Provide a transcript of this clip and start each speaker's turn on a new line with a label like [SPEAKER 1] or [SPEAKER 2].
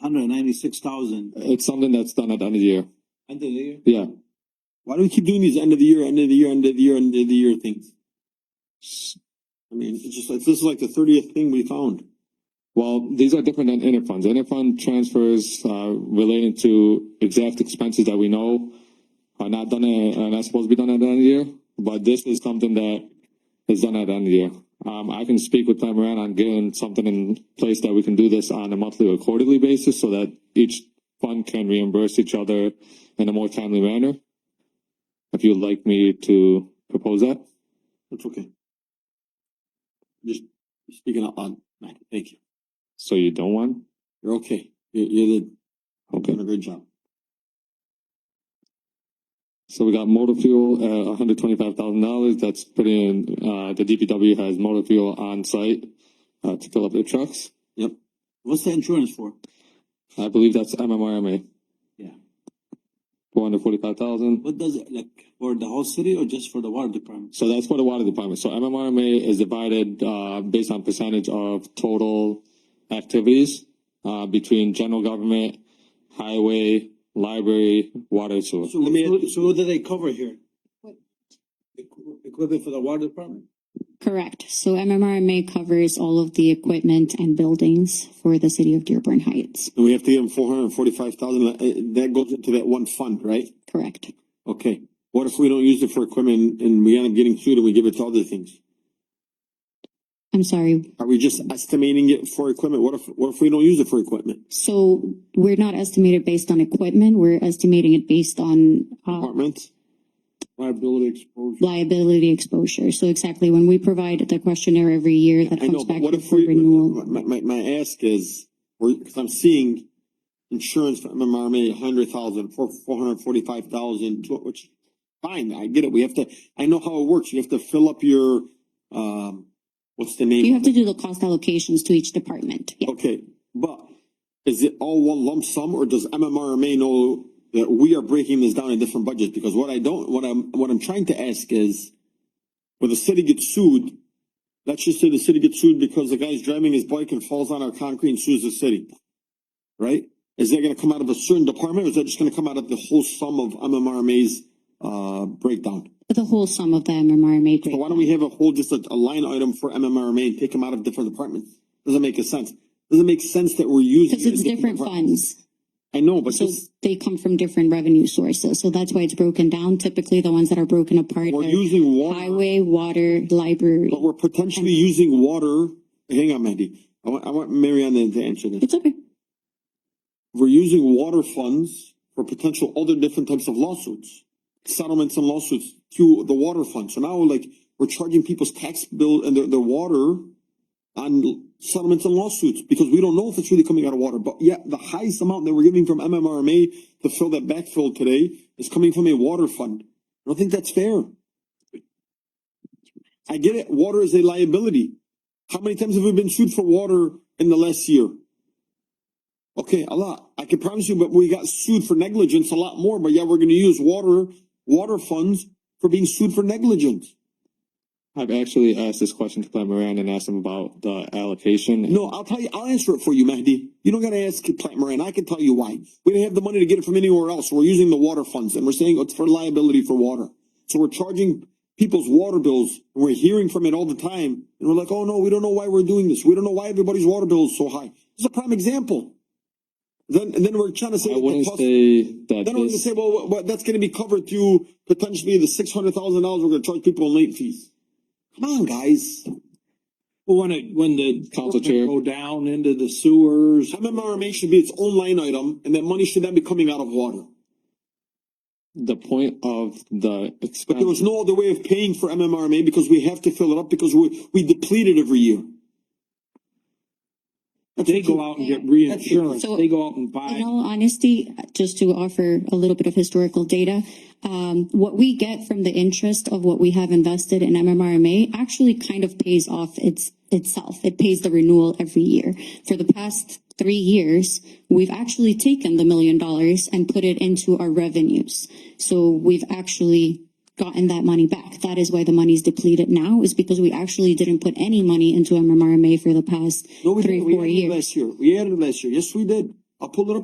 [SPEAKER 1] hundred ninety-six thousand
[SPEAKER 2] It's something that's done at the end of the year.
[SPEAKER 1] end of the year.
[SPEAKER 2] Yeah.
[SPEAKER 1] Why do we keep doing these end of the year, end of the year, end of the year, end of the year things? I mean, it's just like, this is like the thirtieth thing we found.
[SPEAKER 2] Well, these are different than inter funds. Inter fund transfers uh, relating to exact expenses that we know are not done uh, are not supposed to be done at the end of the year. But this is something that is done at the end of the year. Um, I can speak with Tom Moran on getting something in place that we can do this on a monthly or quarterly basis so that each fund can reimburse each other in a more timely manner. If you'd like me to propose that.
[SPEAKER 1] That's okay. Just speaking out loud, Matt, thank you.
[SPEAKER 2] So you don't want?
[SPEAKER 1] You're okay. You're, you're the, you're
[SPEAKER 2] Okay.
[SPEAKER 1] doing a good job.
[SPEAKER 2] So we got motor fuel at one hundred twenty-five thousand dollars. That's pretty. In, uh, the DPW has motor fuel on site uh, to fill up their trucks.
[SPEAKER 1] What's the insurance for?
[SPEAKER 2] I believe that's MMRMA.
[SPEAKER 1] Yeah.
[SPEAKER 2] Four hundred forty-five thousand.
[SPEAKER 1] What does it, like, for the whole city or just for the water department?
[SPEAKER 2] So that's for the water department. So MMRMA is divided uh, based on percentage of total activities uh, between general government, highway, library, water, sewer.
[SPEAKER 1] So, who- so who do they cover here?
[SPEAKER 3] What?
[SPEAKER 1] Equ- Equipment for the water department?
[SPEAKER 3] Correct. So MMRMA covers all of the equipment and buildings for the city of Dearborn Heights.
[SPEAKER 1] And we have to give them four hundred and forty-five thousand, uh, that goes into that one fund, right?
[SPEAKER 3] Correct.
[SPEAKER 1] Okay, what if we don't use it for equipment and we end up getting sued and we give it to other things?
[SPEAKER 3] I'm sorry.
[SPEAKER 1] Are we just estimating it for equipment? What if, what if we don't use it for equipment?
[SPEAKER 3] So we're not estimated based on equipment. We're estimating it based on uh,
[SPEAKER 1] Apartments? Liability exposure.
[SPEAKER 3] liability exposure. So exactly when we provide the questionnaire every year that
[SPEAKER 1] I know,
[SPEAKER 3] comes
[SPEAKER 1] but
[SPEAKER 3] back
[SPEAKER 1] what
[SPEAKER 3] in
[SPEAKER 1] if
[SPEAKER 3] for
[SPEAKER 1] we,
[SPEAKER 3] renewal.
[SPEAKER 1] my, my, my ask is, we cause I'm seeing insurance for MMRMA, a hundred thousand, four, four hundred and forty-five thousand, which, fine, I get it, we have to, I know how it works, you have to fill up your, um, what's the name?
[SPEAKER 3] You
[SPEAKER 1] of
[SPEAKER 3] have
[SPEAKER 1] it?
[SPEAKER 3] to do the cost allocations to each department. Yeah.
[SPEAKER 1] Okay, but is it all one lump sum or does MMRMA know that we are breaking this down in different budgets? Because what I don't, what I'm, what I'm trying to ask is, when the city gets sued, let's just say the city gets sued because the guy's driving his bike and falls on our concrete and sues the city. Right? Is that gonna come out of a certain department or is that just gonna come out of the whole sum of MMRMA's, uh, breakdown?
[SPEAKER 3] The whole sum of the MMRMA.
[SPEAKER 1] So
[SPEAKER 3] grant.
[SPEAKER 1] why don't we have a whole, just a, a line item for MMRMA and take them out of different departments? Doesn't make a sense. Doesn't make sense that we're using.
[SPEAKER 3] Because
[SPEAKER 1] it in
[SPEAKER 3] it's different
[SPEAKER 1] departments.
[SPEAKER 3] funds.
[SPEAKER 1] I know, but
[SPEAKER 3] So
[SPEAKER 1] this,
[SPEAKER 3] they come from different revenue sources. So that's why it's broken down. Typically, the ones that are broken apart
[SPEAKER 1] we're
[SPEAKER 3] are
[SPEAKER 1] using water,
[SPEAKER 3] highway, water, library.
[SPEAKER 1] but we're potentially using water. Hang on, Mandy. I want, I want Marianne to answer this.
[SPEAKER 3] It's okay.
[SPEAKER 1] We're using water funds for potential other different types of lawsuits. Settlements and lawsuits to the water fund. So now like, we're charging people's tax bill and their, their water on settlements and lawsuits because we don't know if it's really coming out of water. But yet the highest amount that we're giving from MMRMA to fill that backfill today is coming from a water fund. I don't think that's fair. I get it. Water is a liability. How many times have we been sued for water in the last year? Okay, a lot. I can promise you, but we got sued for negligence a lot more. But yeah, we're going to use water, water funds for being sued for negligence.
[SPEAKER 2] I've actually asked this question to Plan Moran and asked him about the allocation.
[SPEAKER 1] No, I'll tell you, I'll answer it for you, Mahdi. You don't gotta ask Plant Moran. I can tell you why. We didn't have the money to get it from anywhere else. We're using the water funds and we're saying it's for liability for water. So we're charging people's water bills. and We're hearing from it all the time. And we're like, oh no, we don't know why we're doing this. We don't know why everybody's water bill is so high. It's a prime example. Then, and then we're trying to say.
[SPEAKER 2] I
[SPEAKER 1] that the
[SPEAKER 2] wouldn't
[SPEAKER 1] cost-
[SPEAKER 2] say that
[SPEAKER 1] Then we're gonna
[SPEAKER 2] this-
[SPEAKER 1] say, well, well, that's gonna be covered through potentially the six hundred thousand dollars we're gonna charge people in late fees. Come on, guys.
[SPEAKER 4] Well, when it, when the.
[SPEAKER 2] Council chair.
[SPEAKER 4] Go down into the sewers.
[SPEAKER 1] MMRMA should be its own line item, and that money should then be coming out of water.
[SPEAKER 2] the point of the
[SPEAKER 1] But there was
[SPEAKER 2] expense,
[SPEAKER 1] no other way of paying for MMRMA because we have to fill it up because we, we deplete it every year.
[SPEAKER 4] They go out and get reinsurance.
[SPEAKER 3] So-
[SPEAKER 4] They go out and
[SPEAKER 3] In
[SPEAKER 4] buy.
[SPEAKER 3] all honesty, just to offer a little bit of historical data, um, what we get from the interest of what we have invested in MMRMA actually kind of pays off its, itself. It pays the renewal every year. For the past three years, we've actually taken the million dollars and put it into our revenues. So we've actually gotten that money back. That is why the money's depleted now is because we actually didn't put any money into MMRMA for the past
[SPEAKER 1] No, we
[SPEAKER 3] three,
[SPEAKER 1] didn't. We
[SPEAKER 3] four
[SPEAKER 1] added it
[SPEAKER 3] years.
[SPEAKER 1] last year. We added it last year. Yes, we did. I'll pull it up